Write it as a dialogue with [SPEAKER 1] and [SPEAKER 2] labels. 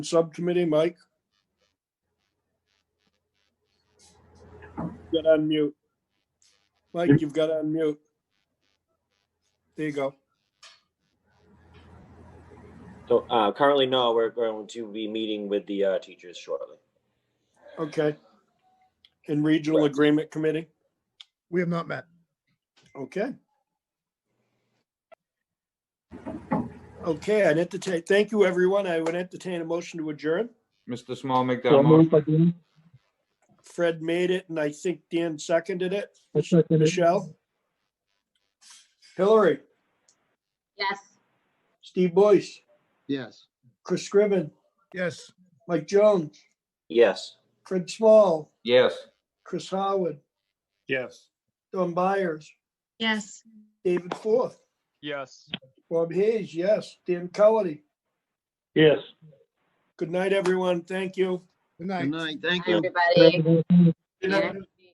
[SPEAKER 1] Subcommittee, Mike? Got to unmute. Mike, you've got to unmute. There you go.
[SPEAKER 2] So uh, currently, no, we're going to be meeting with the uh, teachers shortly.
[SPEAKER 1] Okay. And Regional Agreement Committee?
[SPEAKER 3] We have not met.
[SPEAKER 1] Okay. Okay, I'd entertain, thank you, everyone. I would entertain a motion to adjourn.
[SPEAKER 4] Mr. Small make that
[SPEAKER 5] So moved
[SPEAKER 4] motion.
[SPEAKER 5] by Dan.
[SPEAKER 1] Fred made it, and I think Dan seconded it.
[SPEAKER 5] I second it.
[SPEAKER 1] Michelle? Hillary?
[SPEAKER 6] Yes.
[SPEAKER 1] Steve Boyce?
[SPEAKER 7] Yes.
[SPEAKER 1] Chris Scriven?
[SPEAKER 3] Yes.
[SPEAKER 1] Mike Jones?
[SPEAKER 2] Yes.
[SPEAKER 1] Fred Small?
[SPEAKER 4] Yes.
[SPEAKER 1] Chris Howard,
[SPEAKER 3] Yes.
[SPEAKER 1] Don Byers,
[SPEAKER 6] Yes.
[SPEAKER 1] David Forth,
[SPEAKER 8] Yes.
[SPEAKER 1] Bob Hayes, yes, Dan Cullity.
[SPEAKER 5] Yes.
[SPEAKER 1] Good night, everyone. Thank you.
[SPEAKER 3] Good night.
[SPEAKER 7] Good night. Thank
[SPEAKER 6] Hi,
[SPEAKER 7] you.
[SPEAKER 6] everybody.
[SPEAKER 1] Good
[SPEAKER 6] night.